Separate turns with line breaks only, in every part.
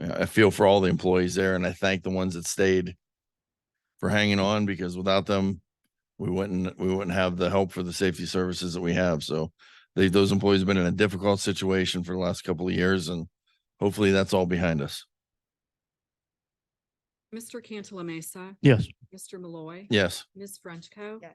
I feel for all the employees there and I thank the ones that stayed for hanging on because without them, we wouldn't, we wouldn't have the help for the safety services that we have. So they, those employees have been in a difficult situation for the last couple of years and hopefully that's all behind us.
Mr. Cantala Mesa,
Yes.
Mr. Malloy.
Yes.
Ms. Frenchco.
Yes.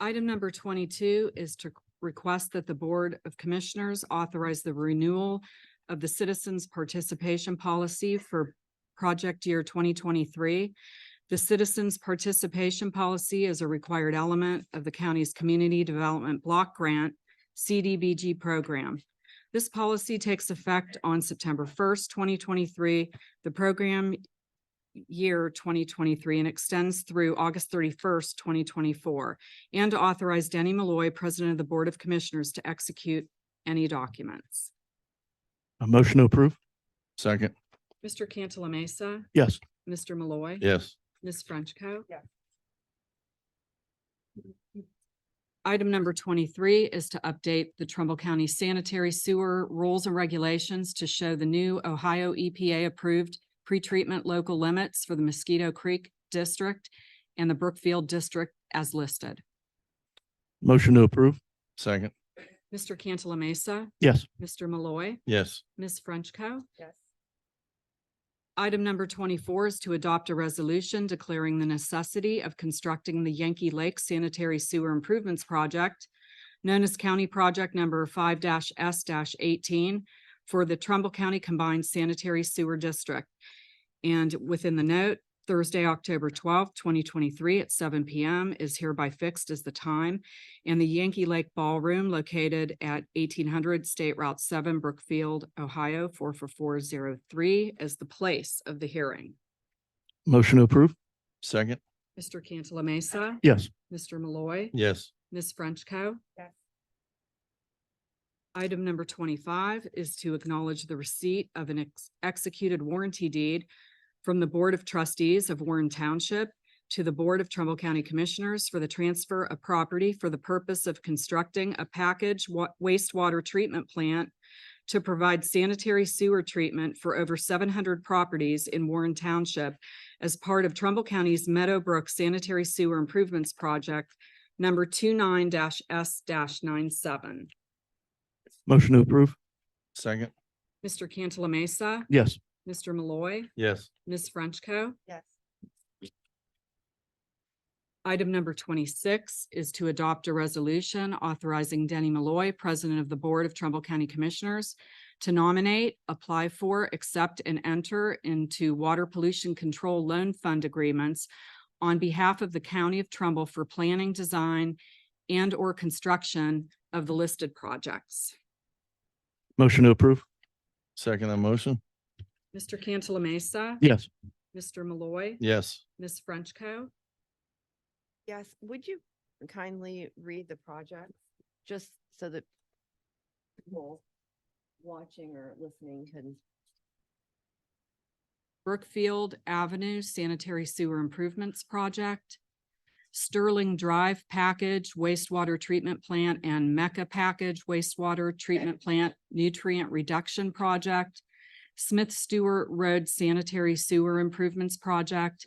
Item number twenty-two is to request that the Board of Commissioners authorize the renewal of the Citizens Participation Policy for Project Year twenty twenty-three. The Citizens Participation Policy is a required element of the county's Community Development Block Grant, CDBG program. This policy takes effect on September first, twenty twenty-three. The program year twenty twenty-three and extends through August thirty-first, twenty twenty-four, and to authorize Danny Malloy, President of the Board of Commissioners, to execute any documents.
A motion to approve?
Second.
Mr. Cantala Mesa,
Yes.
Mr. Malloy.
Yes.
Ms. Frenchco.
Yes.
Item number twenty-three is to update the Trumbull County Sanitary Sewer Rules and Regulations to show the new Ohio E EPA-approved pretreatment local limits for the Mosquito Creek District and the Brookfield District as listed.
Motion to approve?
Second.
Mr. Cantala Mesa,
Yes.
Mr. Malloy,
Yes.
Ms. Frenchco.
yes,
Item number twenty-four is to adopt a resolution declaring the necessity of constructing the Yankee Lake Sanitary Sewer Improvements Project, known as County Project Number five S eighteen for the Trumbull County Combined Sanitary Sewer District. And within the note, Thursday, October twelfth, twenty twenty-three at seven P M is hereby fixed as the time and the Yankee Lake Ballroom located at eighteen hundred State Route seven, Brookfield, Ohio, four four four zero three is the place of the hearing.
Motion to approve?
Second.
Mr. Cantala Mesa,
Yes.
Mr. Malloy,
Yes.
Ms. Frenchco.
yes,
Item number twenty-five is to acknowledge the receipt of an ex- executed warranty deed from the Board of Trustees of Warren Township to the Board of Trumbull County Commissioners for the transfer of property for the purpose of constructing a package wa- wastewater treatment plant to provide sanitary sewer treatment for over seven hundred properties in Warren Township as part of Trumbull County's Meadowbrook Sanitary Sewer Improvements Project number 29 S 97
Motion to approve?
Second.
Mr. Cantala Mesa,
Yes.
Mr. Malloy,
Yes.
Ms. Frenchco.
yes,
Item number twenty-six is to adopt a resolution authorizing Denny Malloy, President of the Board of Trumbull County Commissioners, to nominate, apply for, accept, and enter into water pollution control loan fund agreements on behalf of the County of Trumbull for planning, design, and/or construction of the listed projects.
Motion to approve?
Second that motion.
Mr. Cantala Mesa,
Yes.
Mr. Malloy,
Yes.
Ms. Frenchco.
yes. Would you kindly read the project, just so that people watching or listening can,
Brookfield Avenue Sanitary Sewer Improvements Project, Sterling Drive Package Wastewater Treatment Plant and Mecca Package Wastewater Treatment Plant Nutrient Reduction Project, Smith Stewart Road Sanitary Sewer Improvements Project,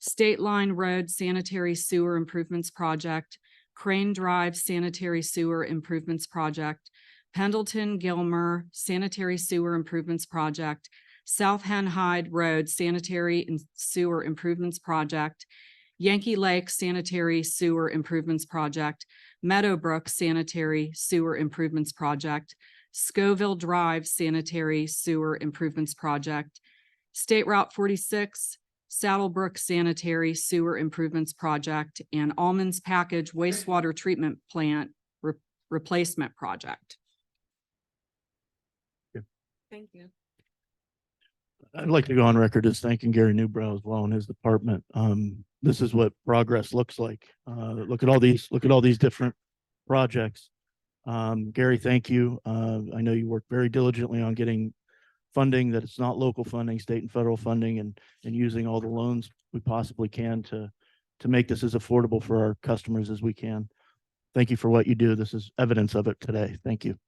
State Line Road Sanitary Sewer Improvements Project, Crane Drive Sanitary Sewer Improvements Project, Pendleton Gilmer Sanitary Sewer Improvements Project, South Hen Hyde Road Sanitary and Sewer Improvements Project, Yankee Lake Sanitary Sewer Improvements Project, Meadowbrook Sanitary Sewer Improvements Project, Scoville Drive Sanitary Sewer Improvements Project, State Route forty-six, Saddlebrook Sanitary Sewer Improvements Project, and Almonds Package Wastewater Treatment Plant Re- Replacement Project. Thank you.
I'd like to go on record as thanking Gary Newbrow as well and his department. Um, this is what progress looks like. Uh, look at all these, look at all these different projects. Um, Gary, thank you. Uh, I know you work very diligently on getting funding that it's not local funding, state and federal funding and, and using all the loans we possibly can to, to make this as affordable for our customers as we can. Thank you for what you do. This is evidence of it today. Thank you.